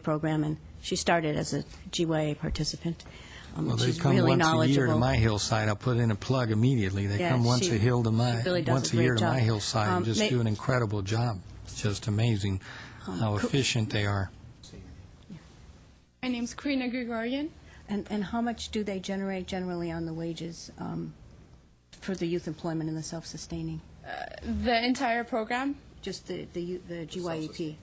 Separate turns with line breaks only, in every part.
program, and she started as a GYA participant. Um,
Well, they
she's
come
really
once a year to
knowledgeable.
my hillside. I'll put in a plug immediately. They
Yeah,
come once
she
a hill to my,
really does
once
a
a year
great
to my
job.
hillside and
Um,
just
may- Um,
do an incredible job. It's just amazing how
cool.
efficient they are.
My name's Karina Gregorian.
And, and how much do they generate generally on the wages um, for the youth employment and the self-sustaining?
The entire program,
Just the, the you- the GYEP?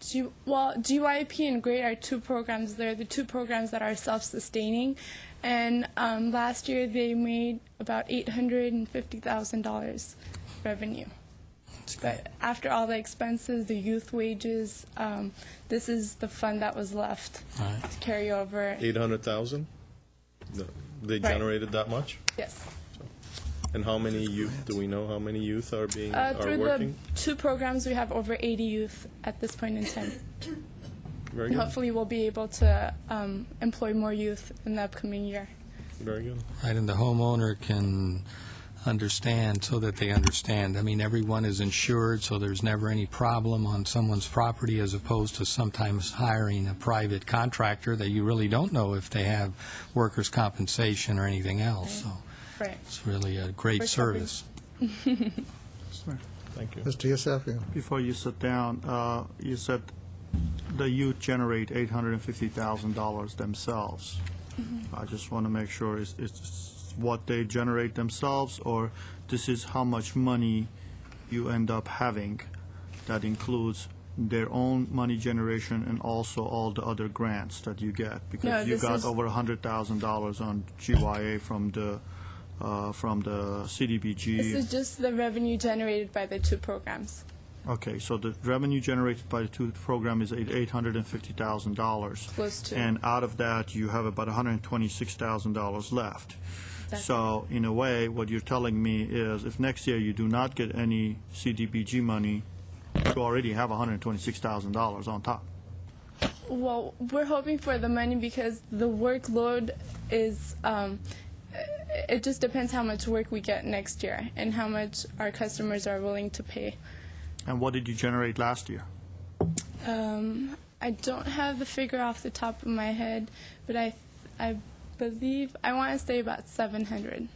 G- well, GYP and GRADE are two programs. They're the two programs that are self-sustaining, and um, last year they made about eight hundred and fifty thousand dollars revenue. But after all the expenses, the youth wages, um, this is the fund that was left
Right.
to carry over.
800,000? No, They
Right.
generated that much?
Yes.
And how many youth, do we know how many youth are being,
Uh,
are
through the
working?
two programs, we have over 80 youth at this point in time.
Very
And
good,
hopefully, we'll be able to um, employ more youth in the upcoming year.
very good.
Right, and the homeowner can understand so that they understand. I mean, everyone is insured, so there's never any problem on someone's property as opposed to sometimes hiring a private contractor that you really don't know if they have workers' compensation or anything else. So
Right.
it's really a great
First helping.
service.
Thank you.
Mr. Yusefian.
Before you sit down, uh, you said the youth generate $850,000 themselves.
Mm-hmm.
I just want to make sure it's- it's what they generate themselves, or this is how much money you end up having that includes their own money generation and also all the other grants that you get?
No,
Because you
this is-
got over $100,000 on GYA from the, uh, from the CDBG.
This is just the revenue generated by the two programs.
Okay, so the revenue generated by the two program is eight eight hundred and fifty thousand dollars.
Close to.
And out of that, you have about hundred and twenty-six thousand dollars left.
That's-
So, in a way, what you're telling me is, if next year you do not get any CDBG money, you already have hundred and twenty-six thousand dollars on top.
Well, we're hoping for the money because the workload is. Um, it- it just depends how much work we get next year and how much our customers are willing to pay.
And what did you generate last year?
Um, I don't have the figure off the top of my head, but I, I believe I want to say about 700.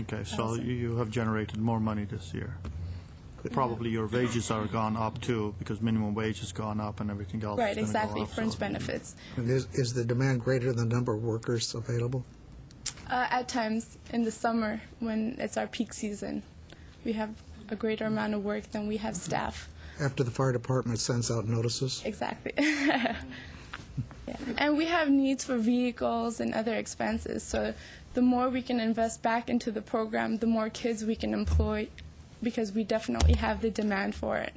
Okay, so you you have generated more money this year. Probably your wages are gone up too, because minimum wage has gone up and everything else is
Right,
gonna go
exactly.
up, so-
Fringe benefits.
And Is, is the demand greater than the number of workers available?
Uh, at times in the summer when it's our peak season, we have a greater amount of work than we have
Mm-hmm.
staff.
After the fire department sends out notices?
Exactly. Yeah. And we have needs for vehicles and other expenses. So the more we can invest back into the program, the more kids we can employ because we definitely have the demand for it.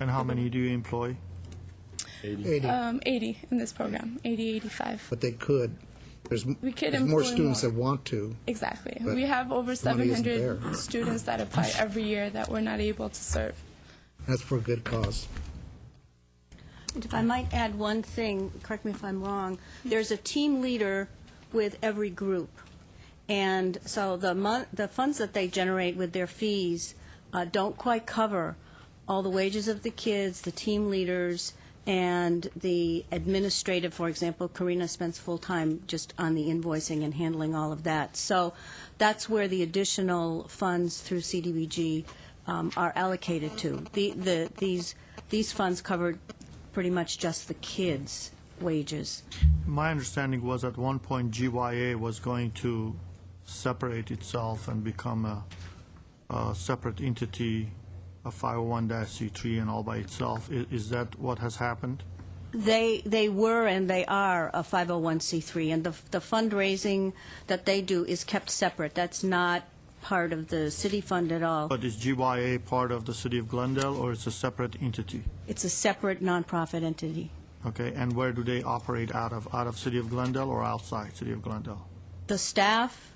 And how many do you employ?
80,
Um, 80 in this program, 80, 85.
but they could. There's, m-
We could
there's more
employ
students
more.
that want to.
Exactly.
But
We have over
money isn't
700
there.
students that apply every year that we're not able to serve.
That's for a good cause.
And if I might add one thing, correct me if I'm wrong, there's a team leader with every group. And so the mon, the funds that they generate with their fees uh, don't quite cover all the wages of the kids, the team leaders, and the administrative, for example, Karina spends full time just on the invoicing and handling all of that. So that's where the additional funds through CDBG um, are allocated to. The, the, these, these funds covered pretty much just the kids' wages.
My understanding was at one point GYA was going to separate itself and become a, a separate entity, a 501c3 and all by itself. I- Is that what has happened?
They, they were and they are a 501c3, and the, the fundraising that they do is kept separate. That's not part of the city fund at all.
But is GYA part of the city of Glendale or it's a separate entity?
It's a separate nonprofit entity.
Okay, and where do they operate out of? Out of city of Glendale or outside city of Glendale?
The staff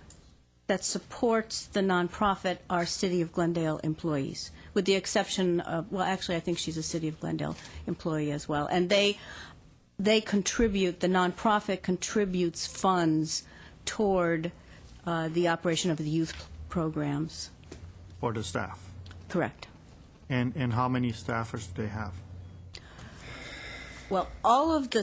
that supports the nonprofit are City of Glendale employees, with the exception of, well, actually, I think she's a City of Glendale employee as well. And they, they contribute, the nonprofit contributes funds toward uh, the operation of the youth programs.
For the staff?
Correct.
And, and how many staffers do they have?
Well, all of the